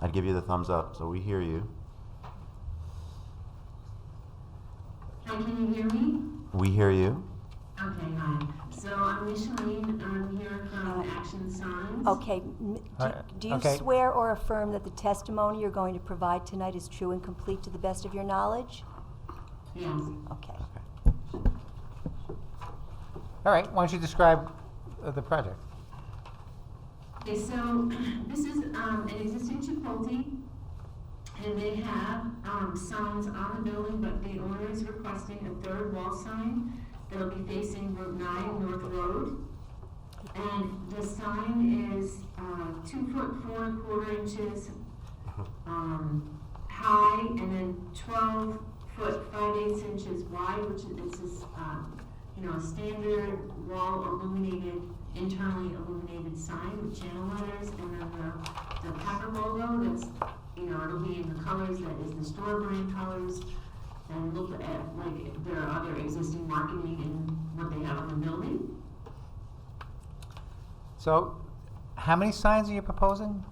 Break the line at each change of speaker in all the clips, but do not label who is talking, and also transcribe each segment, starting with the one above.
I'd give you the thumbs up. So we hear you.
Hi, can you hear me?
We hear you.
Okay, hi. So I'm Micheline, I'm here from Action Signs.
Okay, m- do-
Uh,
do you
okay.
swear or affirm that the testimony you're going to provide tonight is true and complete to the best of your knowledge?
Yes,
Okay.
Okay.
All right, why don't you describe uh, the project?
okay, so this is, um, an existing Chipotle, and they have, um, signs on the building, but the owner is requesting a third wall sign that'll be facing Route nine, North Road. And the sign is, uh, two foot four and quarter inches, um, high, and then twelve foot five eighths inches wide, which is, this is, um, you know, a standard wall illuminated, internally illuminated sign with channel letters, and then the, the Packer logo, that's, you know, it'll be in the colors, that is the store brand colors, and look at, like, their other existing marketing and what they have on the building.
So, how many signs are you proposing?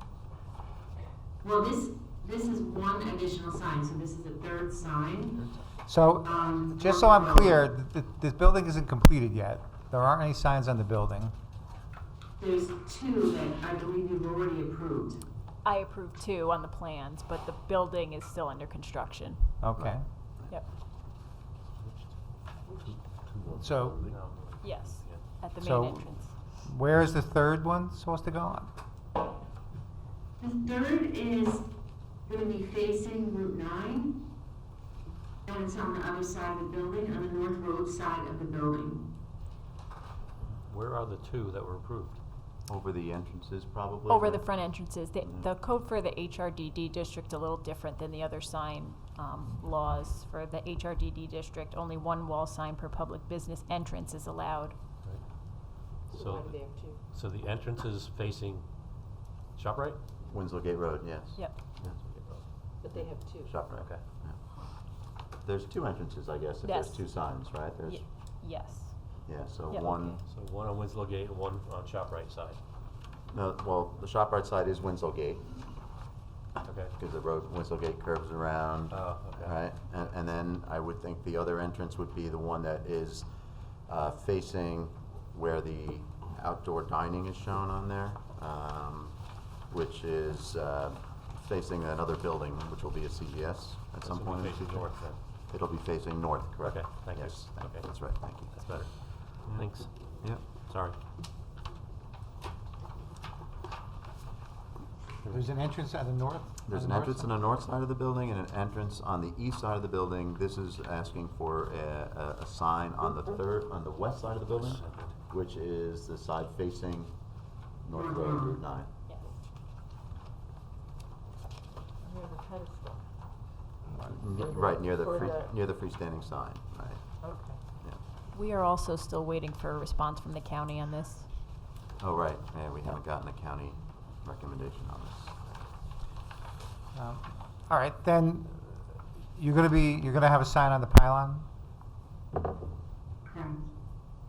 Well, this, this is one additional sign, so this is the third sign.
So,
Um,
just so I'm clear, th- th- this building isn't completed yet. There aren't any signs on the building.
There's two that I believe you've already approved.
I approved two on the plans, but the building is still under construction.
Okay.
Yep.
So,
Yes, at the
So-
main entrance.
where is the third one supposed to go on?
The third is gonna be facing Route nine, and it's on the other side of the building, on the North Road side of the building.
Where are the two that were approved?
Over the entrances, probably.
Over
right?
the front entrances, the,
Mm.
the code for the HRDD district a little different than the other sign, um, laws. For the HRDD district, only one wall sign per public business entrance is allowed.
So, so the entrance is facing ShopRite?
Winslow Gate Road. Yes.
Yep.
Winslow Gate Road.
But they have two.
Shoprite.
Okay.
yeah. There's two entrances, I guess. If
Yes.
there's two signs, right? There's
Ye- Yes.
yeah. So
Yeah,
one.
okay.
So one on Winslow Gate and one on ShopRite side.
No, well, the Shoprite side is Winslow Gate
Okay.
because the road Winslow Gate curves around.
Oh, okay.
Right, and, and then I would think the other entrance would be the one that is uh, facing where the outdoor dining is shown on there, um, which is uh, facing another building, which will be a CVS at
This
some
will be
point. in the
facing
future.
north then.
It'll be facing north, correct?
Okay, thank you.
Yes, thank-
Okay.
that's right, thank you.
That's better.
Yeah.
Thanks.
Yep.
Sorry.
There's an entrance on the north?
There's an entrance on the north side of the building and an entrance on the east side of the building. This is asking for a, a, a sign on the third, on the west side of the building, which is the side facing North Road Route nine.
Yes.
Near the pedestal.
N- Right, near the
Or
free,
the-
near the freestanding sign, right,
Okay.
yeah.
We are also still waiting for a response from the county on this.
Oh, right, yeah, we haven't gotten a county recommendation on this.
Um, All right, then, you're gonna be, you're gonna have a sign on the pylon?
Correct.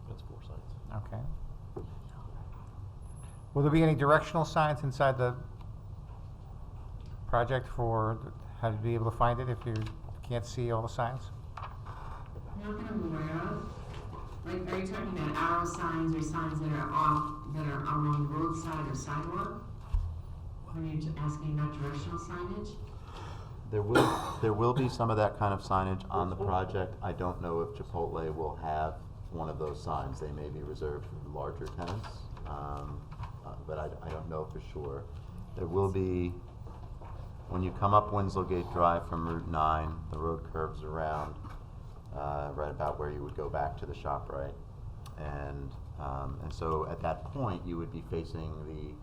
That's four signs.
Okay. Will there be any directional signs inside the project for th- how to be able to find it if you can't see all the signs?
Not that I'm aware of. Like, are you talking about arrow signs or signs that are off, that are along the roadside or sidewalk? Are you t- asking about directional signage?
There will, there will be some of that kind of signage on the project. I don't know if Chipotle will have one of those signs. They may be reserved for larger tenants, um, uh, but I, I don't know for sure. There will be, when you come up Winslow Gate Drive from Route nine, the road curves around, uh, right about where you would go back to the shop, right? And, um, and so at that point, you would be facing the,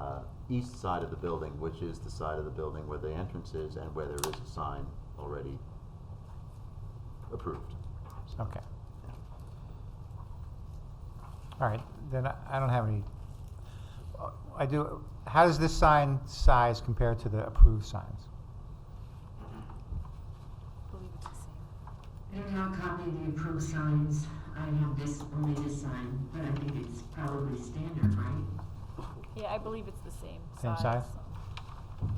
uh, east side of the building, which is the side of the building where the entrance is and where there is a sign already approved.
Okay.
Yeah.
All right, then I I don't have any, uh, I do, how does this sign size compare to the approved signs?
I don't have a copy of the approved signs. I have this, only this sign, but I think it's probably standard, right?
Yeah, I believe it's the same size.
Same size?